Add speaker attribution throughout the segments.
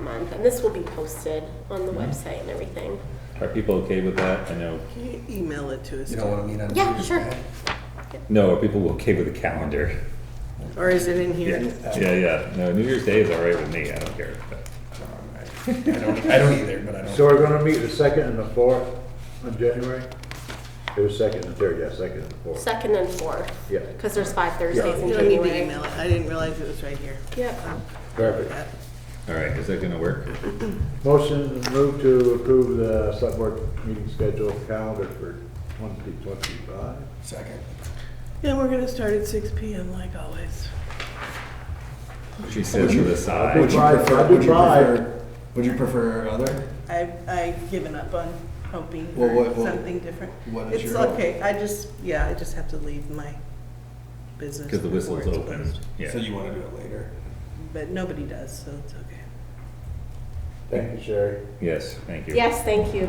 Speaker 1: month, and this will be posted on the website and everything.
Speaker 2: Mm-hmm.
Speaker 3: Are people okay with that? I know,
Speaker 4: Can you email it to us?
Speaker 5: You don't want to meet on
Speaker 1: Yeah,
Speaker 5: Tuesday?
Speaker 1: sure.
Speaker 3: no, are people okay with the calendar?
Speaker 4: Or is it in here?
Speaker 3: Yeah, yeah, yeah. No, New Year's Day is all right with me. I don't care.
Speaker 5: I don't, I don't either, but I
Speaker 2: So
Speaker 5: don't.
Speaker 2: we're gonna meet the second and the fourth on January? It was second and third, yeah, second and fourth.
Speaker 1: Second and fourth.
Speaker 2: Yeah.
Speaker 1: Because there's five Thursdays in
Speaker 4: You don't need to
Speaker 1: January.
Speaker 4: email it. I didn't realize it was right here.
Speaker 1: Yep.
Speaker 2: Perfect.
Speaker 3: All right, is that gonna work?
Speaker 2: Motion to move to approve the select board meeting schedule calendar for twenty twenty-five.
Speaker 5: Second.
Speaker 4: Yeah, we're gonna start at six PM like always.
Speaker 3: She sits to the side.
Speaker 2: Would you prefer- would you prefer-
Speaker 5: Would you prefer other?
Speaker 4: I've, I've given up on hoping
Speaker 5: Well,
Speaker 4: for
Speaker 5: what- what-
Speaker 4: something different.
Speaker 5: what is
Speaker 4: It's
Speaker 5: your hope?
Speaker 4: okay, I just, yeah, I just have to leave my business.
Speaker 3: Because the
Speaker 4: before
Speaker 3: whistle's
Speaker 4: it's
Speaker 3: open.
Speaker 4: closed.
Speaker 3: Yeah.
Speaker 5: So you want to do it later?
Speaker 4: But nobody does, so it's okay.
Speaker 2: Thank you, Sherry.
Speaker 3: Yes, thank you.
Speaker 1: Yes, thank you,
Speaker 2: I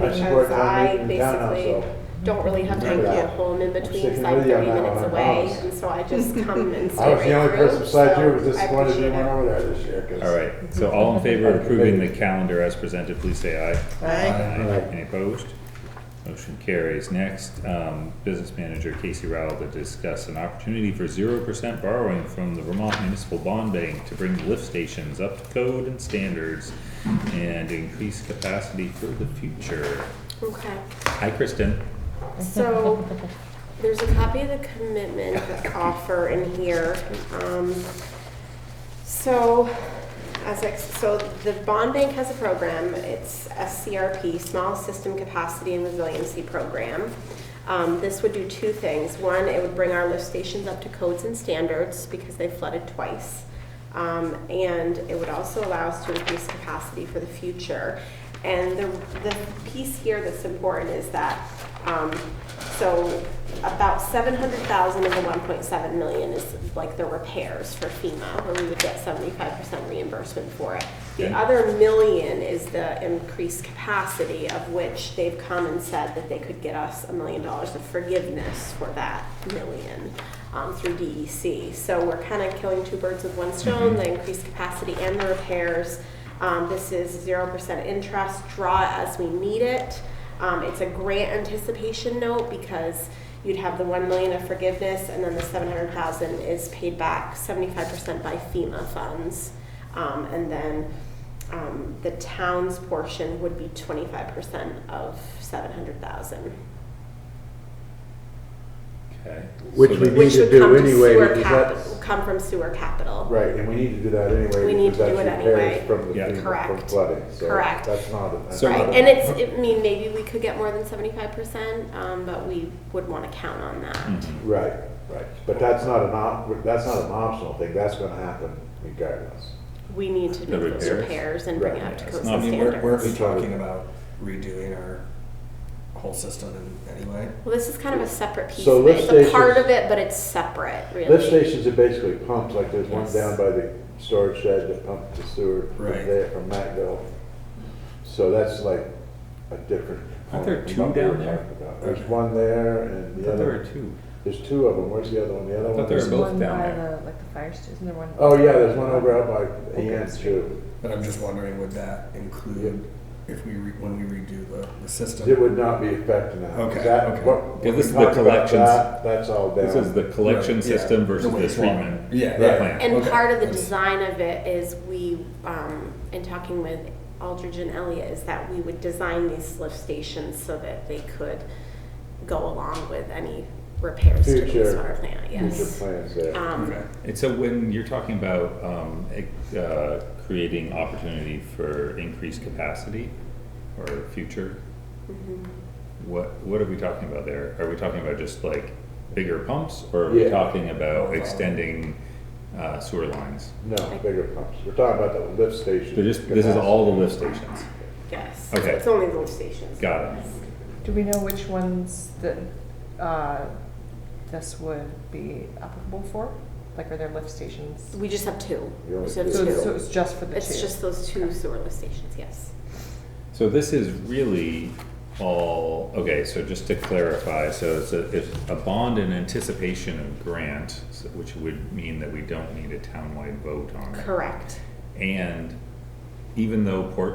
Speaker 1: because
Speaker 2: support town
Speaker 1: I
Speaker 2: meeting in town now,
Speaker 1: basically
Speaker 2: so.
Speaker 1: don't really have time to
Speaker 4: Thank
Speaker 1: go
Speaker 4: you.
Speaker 1: home in between, because
Speaker 2: sticking
Speaker 1: I'm
Speaker 2: with you on
Speaker 1: thirty
Speaker 2: that
Speaker 1: minutes
Speaker 2: one, I
Speaker 1: away,
Speaker 2: promise.
Speaker 1: and so I just come and stay
Speaker 2: I was the only
Speaker 1: right
Speaker 2: person
Speaker 1: through,
Speaker 2: besides you who was
Speaker 1: so I
Speaker 2: disappointed you
Speaker 1: appreciate
Speaker 2: went
Speaker 1: it.
Speaker 2: over there this year. 'cause-
Speaker 3: All right, so all in favor of approving the calendar as presented, please say aye.
Speaker 4: I,
Speaker 2: Aye.
Speaker 3: Any opposed? Motion carries. Next, um, business manager Casey Rowell to discuss an opportunity for zero percent borrowing from the Vermont Municipal Bond Bank to bring lift stations up to code and standards and increase capacity for the future.
Speaker 1: Okay.
Speaker 3: Hi, Kristen.
Speaker 1: So, there's a copy of the commitment offer in here. Um, So, as, ex- so the bond bank has a program, it's SCRP, Small System Capacity and Resiliency Program. Um, This would do two things. One, it would bring our lift stations up to codes and standards because they flooded twice. Um, And it would also allow us to increase capacity for the future. And the, the piece here that's important is that, um, so about seven hundred thousand of the one point seven million is like the repairs for FEMA, where we would get seventy-five percent reimbursement for it. The
Speaker 3: Okay.
Speaker 1: other million is the increased capacity of which they've come and said that they could get us a million dollars of forgiveness for that million um, through DEC. So we're kind of killing two birds with one stone, the increased capacity and the repairs. Um, This is zero percent interest, draw as we need it. Um, it's a grant anticipation note because you'd have the one million of forgiveness and then the seven hundred thousand is paid back seventy-five percent by FEMA funds. Um, and then, um, the town's portion would be twenty-five percent of seven hundred thousand.
Speaker 3: Okay.
Speaker 2: Which
Speaker 3: So
Speaker 2: we
Speaker 3: that-
Speaker 2: need
Speaker 1: Which
Speaker 2: to
Speaker 1: would
Speaker 2: do
Speaker 1: come to
Speaker 2: anyway,
Speaker 1: sewer
Speaker 2: because
Speaker 1: cap,
Speaker 2: that's,
Speaker 1: come from sewer capital.
Speaker 2: right, and we need to do that anyway.
Speaker 1: We need
Speaker 2: because
Speaker 1: to do
Speaker 2: that's
Speaker 1: it
Speaker 2: repairs
Speaker 1: anyway.
Speaker 2: From the
Speaker 3: Yeah.
Speaker 2: FEMA, from
Speaker 1: Correct.
Speaker 2: flooding, so
Speaker 1: Correct.
Speaker 2: that's not. a- that's
Speaker 3: So-
Speaker 2: not
Speaker 1: Right,
Speaker 2: a-
Speaker 1: and it's, I mean, maybe we could get more than seventy-five percent, um, but we would wanna count on that.
Speaker 3: Mhm.
Speaker 5: Mm-hmm.
Speaker 2: Right, right, but that's not an op, that's not an optional thing, that's gonna happen regardless.
Speaker 1: We need to
Speaker 3: The
Speaker 1: make those
Speaker 3: repairs?
Speaker 1: repairs and bring it up
Speaker 3: Right,
Speaker 1: to
Speaker 3: yeah, it's
Speaker 1: codes
Speaker 3: not-
Speaker 5: I
Speaker 1: and
Speaker 5: mean, we're, we're
Speaker 1: standards.
Speaker 5: actually talking about redoing our whole system in any way.
Speaker 1: Well, this is kind of a separate piece
Speaker 2: So
Speaker 1: of it.
Speaker 2: lift
Speaker 1: It's a part
Speaker 2: stations-
Speaker 1: of it, but it's separate, really.
Speaker 2: Lift stations are basically pumps, like there's one
Speaker 1: Yes.
Speaker 2: down by the storage shed that pumps the sewer from
Speaker 5: Right.
Speaker 2: there, from Mattville. So that's like a different.
Speaker 3: Aren't there
Speaker 2: component
Speaker 3: two
Speaker 2: from what we
Speaker 3: down
Speaker 2: were
Speaker 3: there?
Speaker 2: talking about. There's
Speaker 5: Okay.
Speaker 2: one there and
Speaker 3: I
Speaker 2: the
Speaker 3: thought there were
Speaker 2: other,
Speaker 3: two.
Speaker 2: there's two of them, where's the other one, the other
Speaker 3: I
Speaker 2: one?
Speaker 3: thought there
Speaker 2: is-
Speaker 3: were both
Speaker 6: One
Speaker 3: down
Speaker 6: by
Speaker 3: there.
Speaker 6: the, like the fire station, isn't there one?
Speaker 2: Oh, yeah, there's one over out by
Speaker 6: Open
Speaker 2: Ian
Speaker 6: Street.
Speaker 2: too.
Speaker 5: But I'm just wondering, would that include if we, re- when we redo the, the system?
Speaker 2: It would not be affecting that.
Speaker 5: Okay,
Speaker 2: That-
Speaker 5: okay.
Speaker 2: what-
Speaker 3: Yeah,
Speaker 2: when
Speaker 3: this
Speaker 2: we
Speaker 3: is the
Speaker 2: talk about
Speaker 3: collections-
Speaker 2: that, That's all down.
Speaker 3: This is the collection
Speaker 5: Right, yeah.
Speaker 3: system versus
Speaker 5: The
Speaker 3: the
Speaker 5: wastewater.
Speaker 3: treatment.
Speaker 5: Yeah,
Speaker 3: the
Speaker 5: yeah.
Speaker 3: plan.
Speaker 1: And
Speaker 5: Okay.
Speaker 1: part of the
Speaker 5: That's-
Speaker 1: design of it is we, um, in talking with Aldridge and Elliott, is that we would design these lift stations so that they could go along with any repairs to the
Speaker 2: Future-
Speaker 1: wastewater plant,
Speaker 2: Future
Speaker 1: yes.
Speaker 2: plans there.
Speaker 1: Um,
Speaker 5: Okay.
Speaker 3: And so when you're talking about, um, ex- uh, creating opportunity for increased capacity or future,
Speaker 1: mhm.
Speaker 3: what, what are we talking about there? Are we talking about just like bigger pumps or are we
Speaker 2: Yeah.
Speaker 3: talking about extending, uh, sewer lines?
Speaker 2: No, bigger pumps. We're talking about the lift station.
Speaker 3: So just, this is
Speaker 2: capacity.
Speaker 3: all the lift stations.
Speaker 1: Yes,
Speaker 3: Okay.
Speaker 1: it's only the lift stations.
Speaker 3: Got it.
Speaker 6: Do we know which ones that, uh, this would be applicable for? Like, are there lift stations?
Speaker 1: We just have two.
Speaker 2: You
Speaker 1: We
Speaker 2: only
Speaker 1: just have
Speaker 2: do
Speaker 6: So it's, so
Speaker 1: two.
Speaker 6: it's just for the two?
Speaker 1: It's just those two sewer lift stations, yes.
Speaker 3: So this is really all, okay, so just to clarify, so it's a, if a bond in anticipation of grant, so- which would mean that we don't need a townwide vote on it.
Speaker 1: Correct.
Speaker 3: And even though Port